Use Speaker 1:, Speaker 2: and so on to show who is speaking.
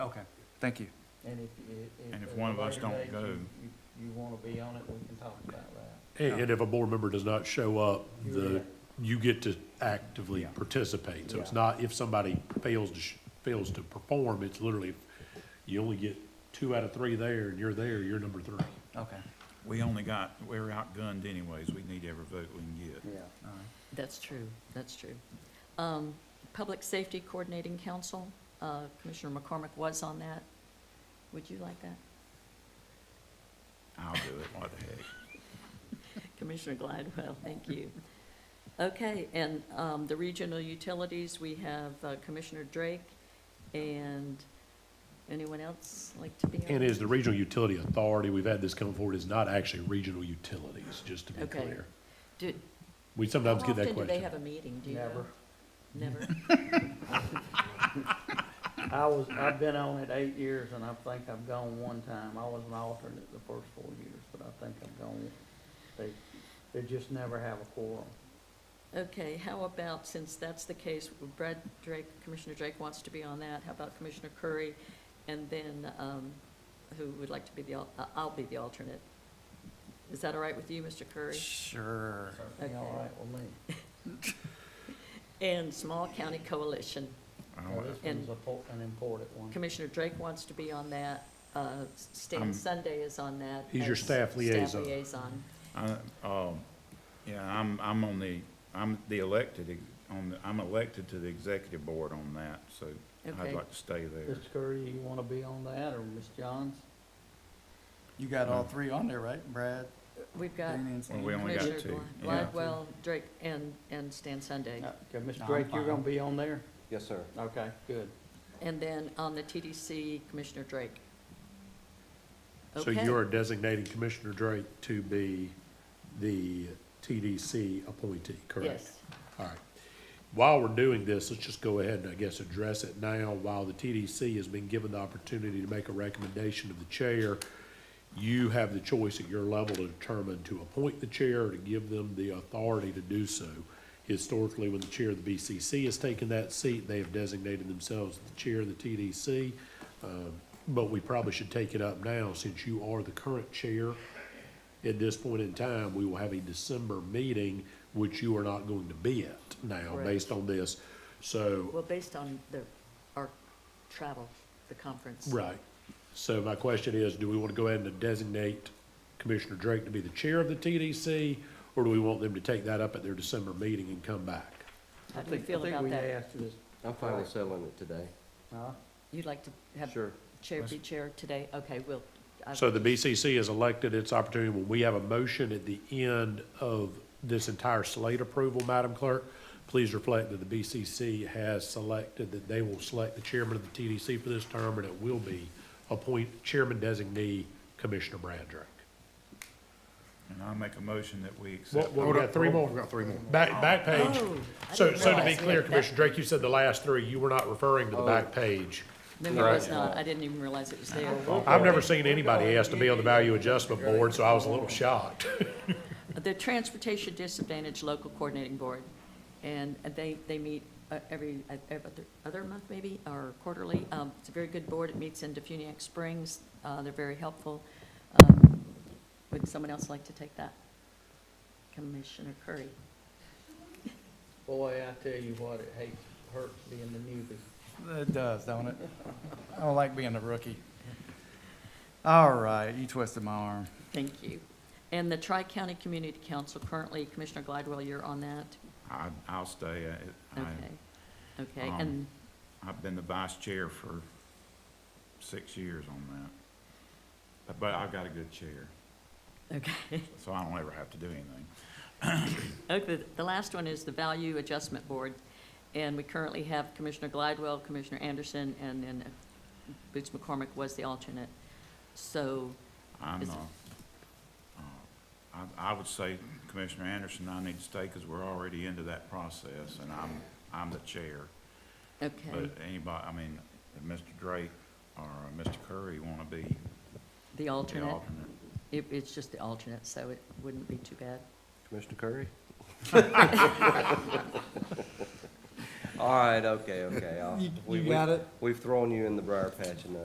Speaker 1: Okay, thank you.
Speaker 2: And if, if.
Speaker 3: And if one of us
Speaker 2: at a
Speaker 3: don't
Speaker 2: later date
Speaker 3: go-
Speaker 2: You, you- you wanna be on it, we can talk about that.
Speaker 4: And, and if a board member does not show up,
Speaker 2: You're
Speaker 4: the,
Speaker 2: right.
Speaker 4: you get to actively
Speaker 3: Yeah.
Speaker 4: participate. So it's
Speaker 2: Yeah.
Speaker 4: not if somebody fails to, sh- fails to perform, it's literally, you only get two out of three there, and you're there, you're number three.
Speaker 1: Okay,
Speaker 3: We only got, we're outgunned anyways, we need every vote we can get.
Speaker 2: Yeah.
Speaker 1: all right.
Speaker 5: That's true, that's true. Um, Public Safety Coordinating Council, uh, Commissioner McCormick was on that. Would you like that?
Speaker 3: I'll do it, what the heck.
Speaker 5: Commissioner Gladwell, thank you. Okay, and um, the Regional Utilities, we have uh, Commissioner Drake and anyone else like to be on?
Speaker 4: And
Speaker 5: it?
Speaker 4: is the Regional Utility Authority, we've had this come forward, is not actually regional utilities, just to be
Speaker 5: Okay.
Speaker 4: clear.
Speaker 5: Do-
Speaker 4: We sometimes get that
Speaker 5: How often do they
Speaker 4: question.
Speaker 5: have a meeting, do you know?
Speaker 2: Never.
Speaker 5: Never?
Speaker 2: I was, I've been on it eight years and I think I've gone one time. I was an alternate the first four years, but I think I've gone, they, they just never have a quorum.
Speaker 5: Okay, how about, since that's the case, Brad Drake, Commissioner Drake wants to be on that, how about Commissioner Curry? And then, um, who would like to be the, al- I- I'll be the alternate. Is that all right with you, Mr. Curry?
Speaker 1: Sure.
Speaker 2: Be all
Speaker 5: Okay.
Speaker 2: right with me.
Speaker 5: And Small County Coalition,
Speaker 2: Now,
Speaker 3: I'll-
Speaker 2: this
Speaker 5: And-
Speaker 2: one's a po- an important one.
Speaker 5: Commissioner Drake wants to be on that, uh, Stan
Speaker 3: I'm-
Speaker 5: Sunday is on that.
Speaker 4: He's your
Speaker 5: as
Speaker 4: staff liaison.
Speaker 5: Staff liaison,
Speaker 3: I, um, yeah, I'm, I'm on the, I'm the elected, ex- on the, I'm elected to the executive board on that, so I'd
Speaker 5: Okay.
Speaker 3: like to stay there.
Speaker 2: Mr. Curry, you wanna be on that or Ms. Johns?
Speaker 1: You got all three on there, right? Brad,
Speaker 5: we've got
Speaker 1: Danny, and
Speaker 3: Well, we
Speaker 1: Sandy?
Speaker 3: only got
Speaker 5: Commissioner
Speaker 3: two.
Speaker 5: Gla-
Speaker 3: Yeah.
Speaker 5: Gladwell, Drake, and, and Stan Sunday.
Speaker 2: Uh, Okay,
Speaker 1: No,
Speaker 2: Mr.
Speaker 1: I'm
Speaker 2: Drake, you're gonna
Speaker 1: fine.
Speaker 2: be on there?
Speaker 6: Yes, sir.
Speaker 2: Okay, good.
Speaker 5: And then on the TDC, Commissioner Drake.
Speaker 4: So
Speaker 5: Okay.
Speaker 4: you are designating Commissioner Drake to be the TDC appointee, correct?
Speaker 5: Yes.
Speaker 4: All right. While we're doing this, let's just go ahead and, I guess, address it now. While the TDC has been given the opportunity to make a recommendation to the chair, you have the choice at your level to determine to appoint the chair or to give them the authority to do so. Historically, when the chair of the BCC has taken that seat, they have designated themselves the chair of the TDC. Um, But we probably should take it up now, since you are the current chair at this point in time, we will have a December meeting, which you are not going to be at now,
Speaker 5: Correct.
Speaker 4: based on this. So,
Speaker 5: Well, based on the, our travel, the conference.
Speaker 4: right. So my question is, do we want to go ahead and designate Commissioner Drake to be the chair of the TDC? Or do we want them to take that up at their December meeting and come back?
Speaker 5: How do you
Speaker 2: think- I
Speaker 5: feel
Speaker 2: think
Speaker 5: about
Speaker 2: we
Speaker 5: that?
Speaker 2: asked this,
Speaker 6: I'm fine with settling it today.
Speaker 2: huh?
Speaker 5: You'd like to have
Speaker 6: Sure.
Speaker 5: chair be chair today? Okay, we'll. I-
Speaker 4: So the BCC is elected its opportunity. When we have a motion at the end of this entire slate approval, Madam Clerk, please reflect that the BCC has selected that they will select the chairman of the TDC for this term, and it will be appoint chairman designee Commissioner Brad Drake.
Speaker 3: And I make a motion that we accept.
Speaker 4: What, what, we got three more? We got three more. Back, back page.
Speaker 5: Oh, I
Speaker 4: So,
Speaker 5: didn't
Speaker 4: so to be
Speaker 5: realize
Speaker 4: clear,
Speaker 5: that.
Speaker 4: Commissioner Drake, you said the last three. You were not referring to the back page.
Speaker 5: No, it was not. I didn't even realize it was there.
Speaker 4: I've never seen anybody asked to be on the Value Adjustment Board, so I was a little shocked.
Speaker 5: The Transportation Disadvantaged Local Coordinating Board, and they, they meet uh, every, uh, every other- other month maybe, or quarterly. Um, It's a very good board, it meets in Defuniak Springs, Uh, they're very helpful. Um, Would someone else like to take that? Commissioner Curry.
Speaker 2: Boy, I tell you what, it hates, hurts being the newbie.
Speaker 1: It does, don't it? I don't like being a rookie. All right, you twisted my arm.
Speaker 5: Thank you. And the Tri-County Community Council, currently Commissioner Gladwell, you're on that?
Speaker 3: I, I'll stay. I- I,
Speaker 5: Okay, okay,
Speaker 3: um,
Speaker 5: and,
Speaker 3: I've been the vice chair for six years on that. But- But I've got a good chair,
Speaker 5: okay.
Speaker 3: so I don't ever have to do anything.
Speaker 5: Okay, Oh, the last one is the Value Adjustment Board, and we currently have Commissioner Glidewell, Commissioner Anderson, and then uh, Boots McCormick was the alternate. So,
Speaker 3: I'm,
Speaker 5: Is-
Speaker 3: uh, uh, I, I would say Commissioner Anderson, I need to stay because we're already into that process and I'm, I'm the chair.
Speaker 5: okay,
Speaker 3: But anybody, I mean, if Mr. Drake or Mr. Curry want to be
Speaker 5: the
Speaker 3: the
Speaker 5: alternate,
Speaker 3: alternate,
Speaker 5: it, it's just the alternate, so it wouldn't be too bad.
Speaker 6: Commissioner Curry? All right, okay, okay. I'll-
Speaker 1: You-
Speaker 6: we-
Speaker 1: you
Speaker 6: we-
Speaker 1: got it?
Speaker 6: We've thrown you in the briar patch enough.